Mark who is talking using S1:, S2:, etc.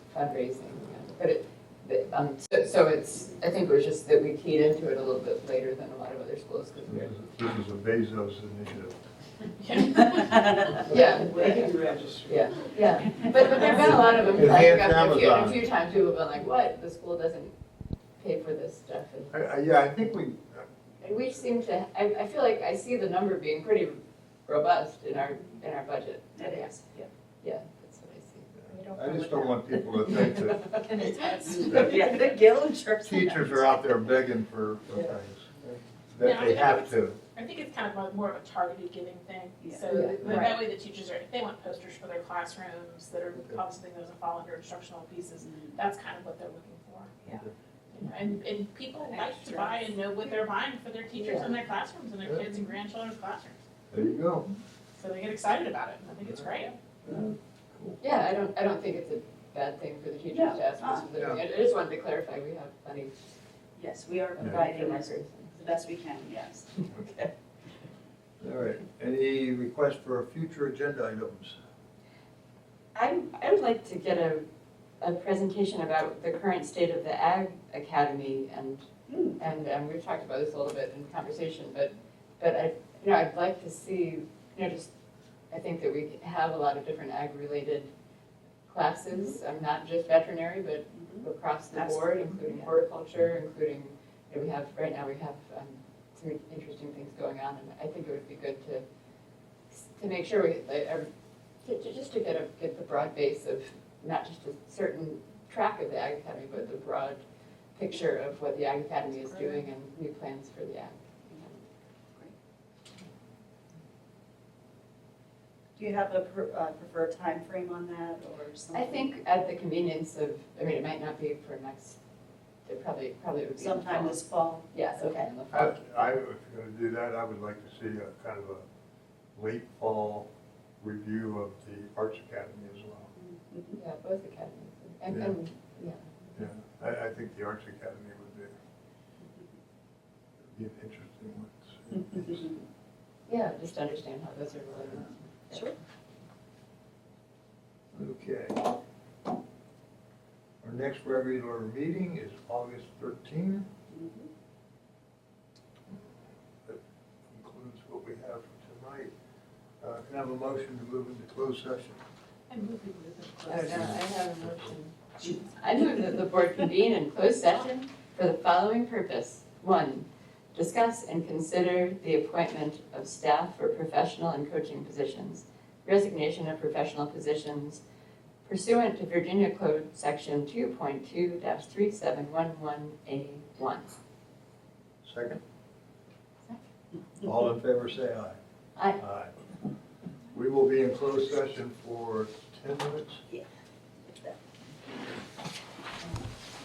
S1: fundraising, yeah. but it, but, um, so, so it's, I think it was just that we keyed into it a little bit later than a lot of other schools, because
S2: This
S1: we're.
S2: is- this is a Bezos initiative.
S1: Yeah.
S3: They can register.
S1: Yeah, yeah, but, but there've been a lot of them, like,
S2: Enhanced
S1: after a few, a
S2: Amazon.
S1: few times, people have been like, what, the school doesn't pay for this stuff, and
S2: I- I- Yeah, I think we,
S1: And we seem to, I, I feel like I see the number being pretty robust in our, in our budget.
S4: It is, yeah.
S1: Yeah, that's what I
S2: I just don't want people to think that
S4: Can attest.
S2: Yeah,
S4: the guild trips.
S2: teachers are out there begging for for
S1: Yeah.
S2: things, that they have to.
S5: I think it's kind of like more of a targeted giving thing.
S4: Yeah.
S5: So
S1: Yeah.
S5: that- that way the teachers are, if they want posters for their classrooms that are
S2: Okay.
S5: on something that doesn't fall under instructional pieces, that's kind of what they're looking for.
S4: Mm-hmm. Yeah.
S5: You know, And, and people like to buy and know what they're buying for their teachers and their classrooms and their
S2: Yeah.
S5: kids and grandchildren's classrooms.
S2: There you go.
S5: So they get excited about it. and I think it's great.
S1: see. Yeah, I don't, I don't think it's a bad thing for the teachers to ask us if they're doing it. I just wanted to clarify, we have plenty
S4: Yes, we are
S1: of
S4: providing
S1: records.
S4: as the best we can, yes.
S2: All right, any requests for future agenda items?
S1: I, I would like to get a, a presentation about the current state of the Ag Academy and,
S4: Hmm.
S1: and, and we've talked about this a little bit in conversation, but, but I, you know, I'd like to see, you know, just, I think that we have a lot of different ag-related classes, um, not just veterinary, but across the board,
S4: Absolutely.
S1: including horticulture, including, you know, we have, right now we have um, some interesting things going on, and I think it would be good to, to make sure we, like, every- to- to just to get a, get the broad base of, not just a certain track of the Ag Academy, but the broad picture of what the Ag Academy is doing and new plans for the Ag.
S4: Do you have a per- uh, preferred time frame on that or something?
S1: I think at the convenience of, I mean, it might not be for next, it probably, probably would be. in the
S4: Sometime
S1: fall.
S4: this fall.
S1: Yeah, sometime in the
S2: I,
S1: fall.
S2: I- if you're gonna do that, I would like to see a kind of a late fall review of the Arts Academy as well.
S4: Mhm.
S1: Yeah, both academies. And,
S2: Yeah.
S1: and, yeah.
S2: Yeah, I, I think the Arts Academy would be, be an interesting one. to see.
S1: Yeah, just to understand how those are related.
S4: Sure.
S2: Okay. Our next regular meeting is August thirteenth.
S4: Mhm.
S2: That includes what we have for tonight. Uh, Can I have a motion to move into closed session?
S5: And move people to the
S1: I don't
S5: classroom.
S1: know, I have a motion. I move that the board convene in closed session for the following purpose. One, discuss and consider the appointment of staff for professional and coaching positions, resignation of professional positions pursuant to Virginia Code Section two point two three seven one one A one.
S2: Second? All in favor, say aye.
S1: Aye.
S2: Aye. We will be in closed session for ten minutes.
S4: Yeah.